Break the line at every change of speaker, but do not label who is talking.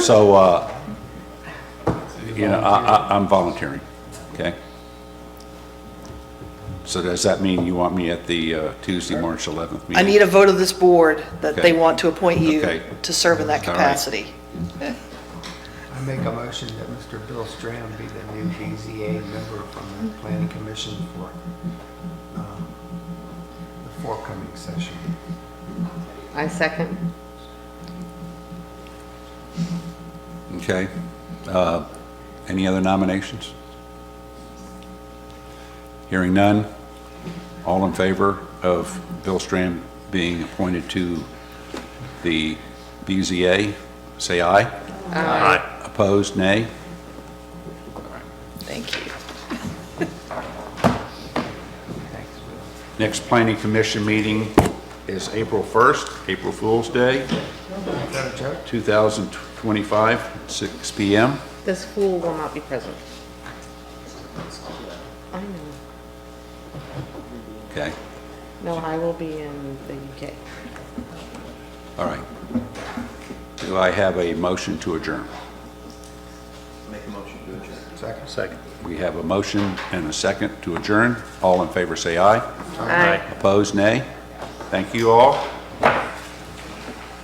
So, uh, you know, I, I, I'm volunteering, okay? So does that mean you want me at the uh, Tuesday, March 11th meeting?
I need a vote of this board that they
Okay.
want to appoint
Okay.
you to serve in that
All right.
capacity.
I make a motion that Mr. Bill Strand be the new BZA member from the Planning Commission for um, the forthcoming session.
I second.
Okay. Uh, Any other nominations? Hearing none. All in favor of Bill Strand being appointed to the BZA, say aye. Aye. Opposed, nay?
Thank you.
Thanks, Will.
Next planning commission meeting is April 1st, April Fool's Day,
Is that a joke?
2025, 6 PM.
This fool will not be present. I know.
Okay,
No, I will be in the UK.
all right. Do I have a motion to adjourn?
Second.
We have a motion and a second to adjourn. All in favor, say aye.
Aye.
Opposed, nay. Thank you all.